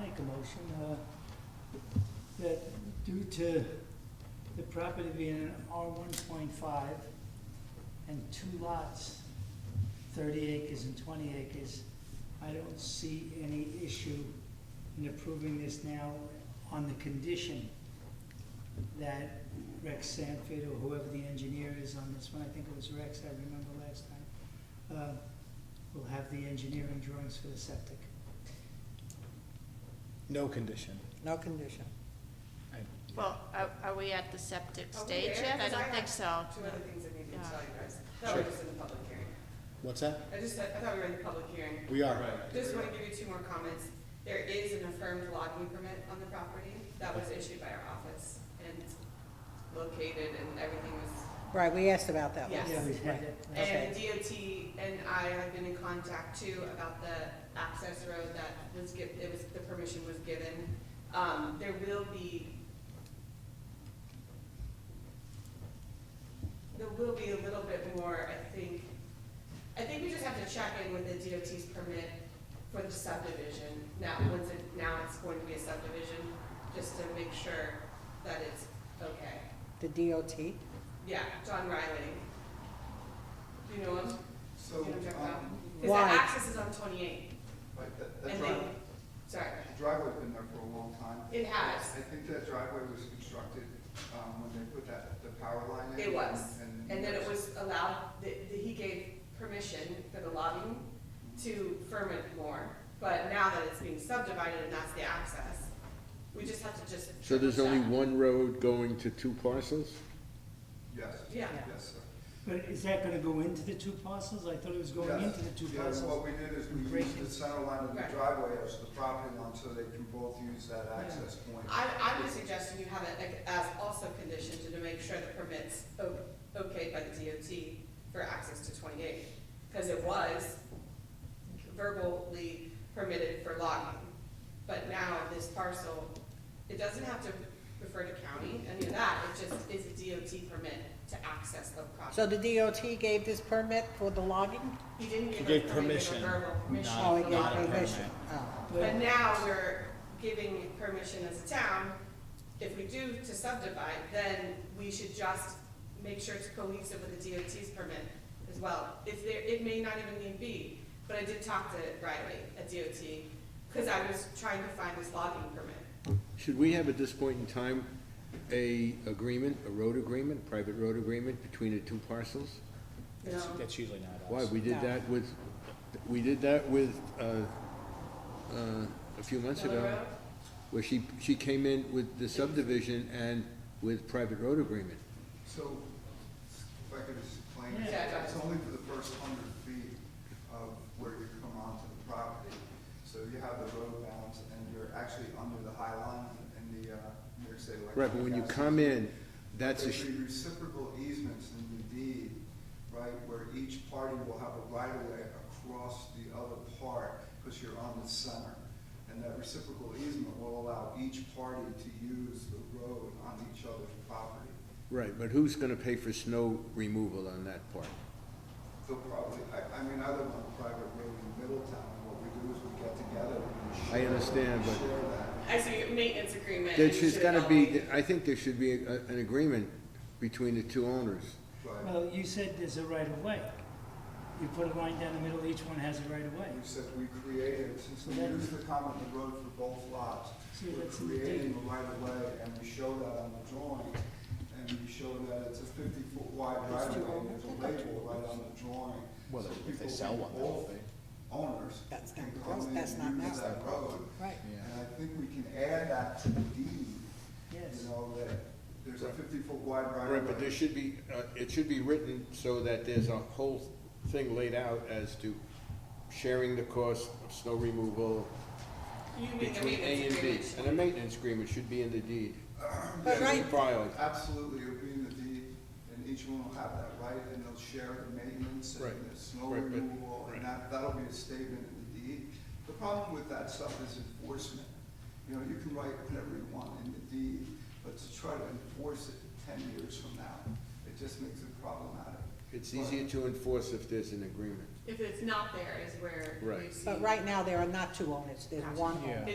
make a motion, uh, that due to the property being an R one point five and two lots, thirty acres and twenty acres, I don't see any issue in approving this now on the condition that Rex Sanford or whoever the engineer is on this one, I think it was Rex, I remember last time, uh, will have the engineering drawings for the septic. No condition. No condition. I- Well, are, are we at the septic Are we stage there? yet? I Because I don't think have so. Two other things I needed to Yeah. tell you guys. That was Sure. just in the public hearing. What's that? I just, said- I thought we were in the public hearing. We are. Just want to give you two more comments. There is an affirmed logging permit on the property that was issued by our office and located and everything was, Right, we asked about that one. Yes. Yeah, we had it. and DOT and I have been in contact too about the access road that was giv it was, the permission was given. Um, there will be there will be a little bit more, I think, I think we just have to check in with the DOT's permit for the subdivision. Now, once it, now it's going to be a subdivision, just to make sure that it's okay. The DOT, Yeah, John Riley. Do you know him? So, You know Jeff Rao? um, Because Why? the access is on twenty-eight, like that, that and they, driveway, sorry, the driveway's been there for a long time. it has, I think that driveway was constructed, um, when they put that, the power line in. It was. and- and then it was allowed, that, that he gave permission for the lobbying to ferment more, but now that it's being subdivided and that's the access, we just have to just. So there's triple only check. one road going to two parcels? Yes. Yeah. Yes, sir. But is that gonna go into the two parcels? I thought it was going Yes. into the two Yeah, What parcels. we did is we Breaking. used the center line of the Right. driveway as the property line, so they can both use that access point. I, I would suggest you have it like, as also conditioned to make sure the permit's o- okay by the DOT for access to twenty-eight. Because it was verbally permitted for logging, but now this parcel, it doesn't have to refer to county, any of that, it just is a DOT permit to access the so property. the DOT gave this permit for the logging? He didn't give He a gave permit, he gave a permission, verbal permission not- Oh, for it gave logging. permission, oh. But But now we're giving permission as a town, if we do to subdivide, then we should just make sure it's cohesive with the DOT's permit as well. If there, it may not even need be, but I did talk to Riley at DOT, because I was trying to find this logging permit. Should we have at this point in time a agreement, a road agreement, private road agreement between the two parcels? No, That's usually not us. Why, we No. did that with, we did that with, uh, uh, a few months Miller ago, Road? where she, she came in with the subdivision and with private road agreement. So, if I could just explain, Yeah. it's only for the first hundred feet of where you come onto the property. So you have the road bounds and you're actually under the high line in the, uh, New York State electric. Right, but when you gas come system. in, that's a, There sh- should be reciprocal easements in the deed, right, where each party will have a right of way across the other part, because you're on the center. And that reciprocal easement will allow each party to use the road on each other's property. right, but who's gonna pay for snow removal on that part? They'll probably, I, I mean, I live on a private road in Middletown, and what we do is we get together and I share. understand, but- Share that. I see a maintenance agreement. There and you should, has should gotta be, elevate. I think there should be a, an agreement between the two owners. But Well, you said there's a right of way. You put a line down the middle, each one has a right of way. we said we created, since we That- used the common road for both lots, See, we're that's in the creating deed. the right of way, and we show that on the drawing, and we show that it's a fifty-foot wide right of way, and there's a label right on the drawing. Well, So if they people sell can- one, both they'll be- Owners That's can not come gross, in that's not and use gross. that road. Right, And Yeah. I think we can add that to the deed, Yes. you know, that there's a fifty-foot wide right of way. Right, but there should be, uh, it should be written so that there's a whole thing laid out as to sharing the cost of snow removal You mean the between A maintenance and B. agreement. And a maintenance agreement should be in the deed. But Should be right- Filed. Absolutely, it'll be in the deed, and each one will have that right, and they'll share the maintenance and Right. the snow Right, but- removal, right. and that, that'll be a statement in the deed. The problem with that stuff is enforcement. You know, you can write whatever you want in the deed, but to try to enforce it ten years from now, it just makes it problematic. It's But- easier to enforce if there's an agreement. If it's not there is where Right. you see. but right now, there are not two owners, there's one owner. Yeah. It